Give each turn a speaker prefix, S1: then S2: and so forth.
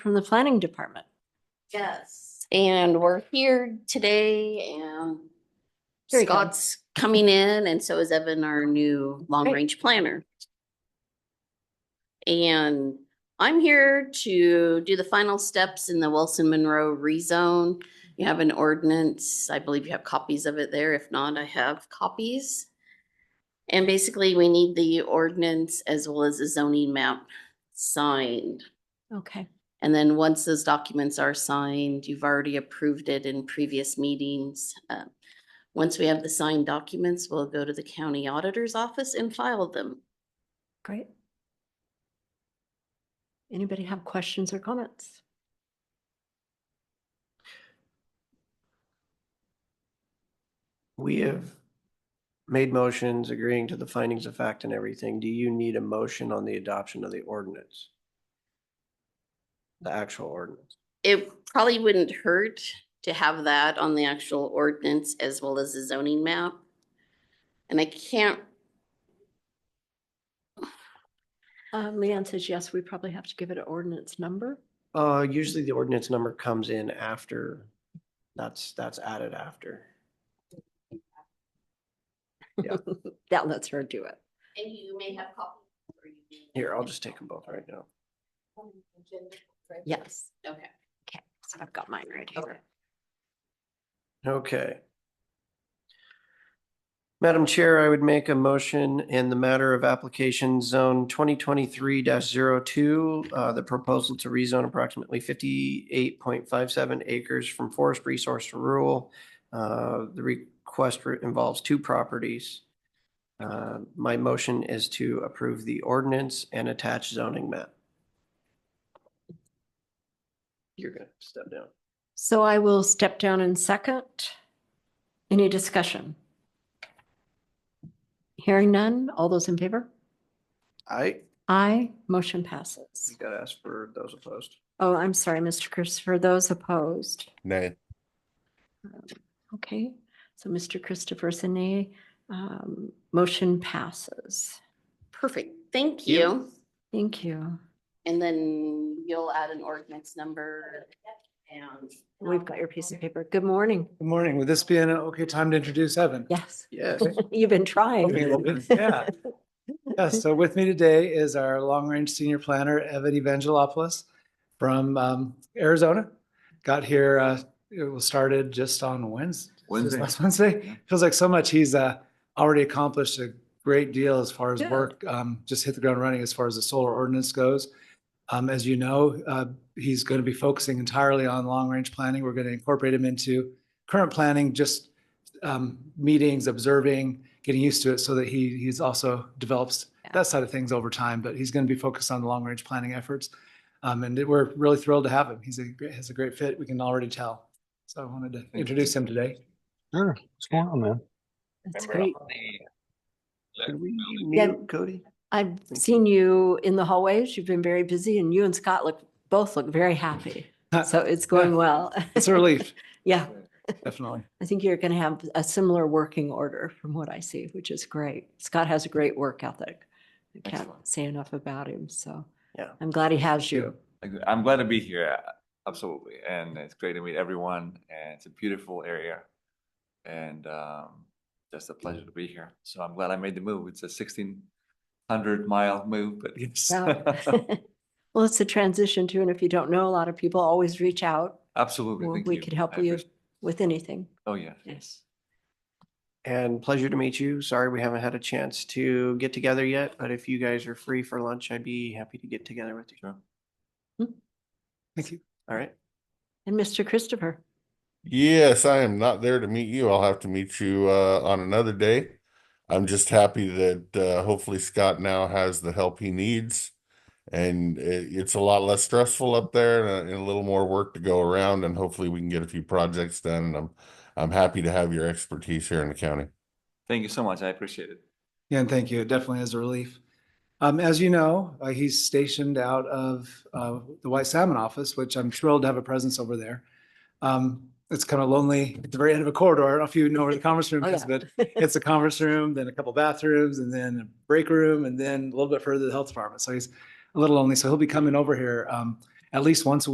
S1: from the planning department.
S2: Yes, and we're here today and
S1: Here we go.
S2: Scott's coming in and so is Evan, our new long
S1: Great.
S2: range planner. And I'm here to do the final steps in the Wilson Monroe rezone. You have an ordinance. I believe you have copies of it there. If not, I have copies. And basically, we need the ordinance as well as a zoning map signed.
S1: Okay.
S2: And then once those documents are signed, you've already approved it in previous meetings. uh, Once we have the signed documents, we'll go to the county auditor's office and file them.
S1: Great. Anybody have questions or comments?
S3: We have made motions agreeing to the findings of fact and everything. Do you need a motion on the adoption of the ordinance? The actual ordinance?
S2: It probably wouldn't hurt to have that on the actual ordinance as well as the zoning map. And I can't,
S1: Uh, Leanne says, yes, we probably have to give it an ordinance number.
S3: Uh, usually the ordinance number comes in after, that's, that's added after.
S1: That lets her do it.
S2: and you may have copies. or you may-
S3: Here, I'll just take them both right now.
S1: Yes.
S2: Okay.
S1: Okay, so I've got mine right here.
S3: Okay. Madam Chair, I would make a motion in the matter of application zone twenty twenty-three 2 uh, the proposal to rezone approximately fifty-eight point five seven acres from forest resource to rural. Uh, the request re- involves two properties. Uh, my motion is to approve the ordinance and attach zoning map. You're gonna step down.
S1: So I will step down in second. Any discussion? Hearing none. All those in favor?
S3: I,
S1: Aye. Motion passes.
S3: gotta ask for those opposed.
S1: Oh, I'm sorry, Mr. Christopher, those opposed.
S4: Nay.
S1: Okay, so Mr. Christopher Sine, um, motion passes.
S2: Perfect. Thank
S3: you.
S2: you.
S1: Thank you.
S2: And then you'll add an ordinance number and.
S1: We've got your piece of paper. Good morning.
S5: Good morning. Would this be an okay time to introduce Evan?
S1: Yes,
S3: Yes.
S1: you've been
S5: Okay, well,
S1: trying.
S5: good. Yeah. Yeah, so with me today is our long-range senior planner, Evan Evangelopoulos from um, Arizona. Got here, uh, it was started just on Wednesday.
S4: Wednesday.
S5: Last Wednesday. Feels like so much. He's uh, already accomplished a great deal as far as
S1: Good.
S5: work, um, just hit the ground running as far as the solar ordinance goes. Um, As you know, uh, he's going to be focusing entirely on long-range planning. We're going to incorporate him into current planning, just um, meetings, observing, getting used to it so that he, he's also develops
S1: Yeah.
S5: that side of things over time, but he's going to be focused on the long range planning efforts. Um, and we're really thrilled to have him. He's a, gr- has a great fit. We can already tell. So I wanted to introduce him today.
S4: Sure. What's going on, man?
S1: That's great.
S3: Could we
S1: Yeah.
S3: mute Cody?
S1: I've seen you in the hallways. You've been very busy and you and Scott look, both look very happy. So it's going well.
S5: It's a relief,
S1: Yeah,
S5: definitely.
S1: I think you're going to have a similar working order from what I see, which is great. Scott has a great work ethic. I can't
S3: Excellent.
S1: say enough about him, so.
S3: Yeah.
S1: I'm glad he has you.
S6: Ex- I'm glad to be here, a- absolutely, and it's great to meet everyone, and it's a beautiful area. And um, just a pleasure to be here, so I'm glad I made the move, it's a sixteen hundred mile move, but yes.
S1: Yeah. Well, it's a transition too, and if you don't know, a lot of people always reach out
S6: Absolutely,
S1: Well,
S6: thank
S1: we
S6: you.
S1: could help
S6: I
S1: you.
S6: appreci-
S1: with anything.
S6: Oh, yeah.
S1: Yes.
S3: And pleasure to meet you. Sorry we haven't had a chance to get together yet, but if you guys are free for lunch, I'd be happy to get together with you.
S6: Sure.
S5: Thank you.
S3: All right.
S1: And Mr. Christopher,
S4: Yes, I am not there to meet you. I'll have to meet you uh, on another day. I'm just happy that uh, hopefully Scott now has the help he needs. And it, it's a lot less stressful up there and a, and a little more work to go around. And hopefully we can get a few projects done. And I'm, I'm happy to have your expertise here in the county.
S6: Thank you so much, I appreciate it.
S5: Yeah, and thank you. It definitely is a relief. Um, as you know, uh, he's stationed out of uh, the White Salmon office, which I'm thrilled to have a presence over there. Um, it's kind of lonely at the very end of a corridor. I don't know if you know where the conference room
S1: Oh,
S5: is,
S1: yeah.
S5: but it's a conference room, then a couple bathrooms, and then a break room, and then a little bit further to the health department. So he's a little lonely. So he'll be coming over here um, at least once a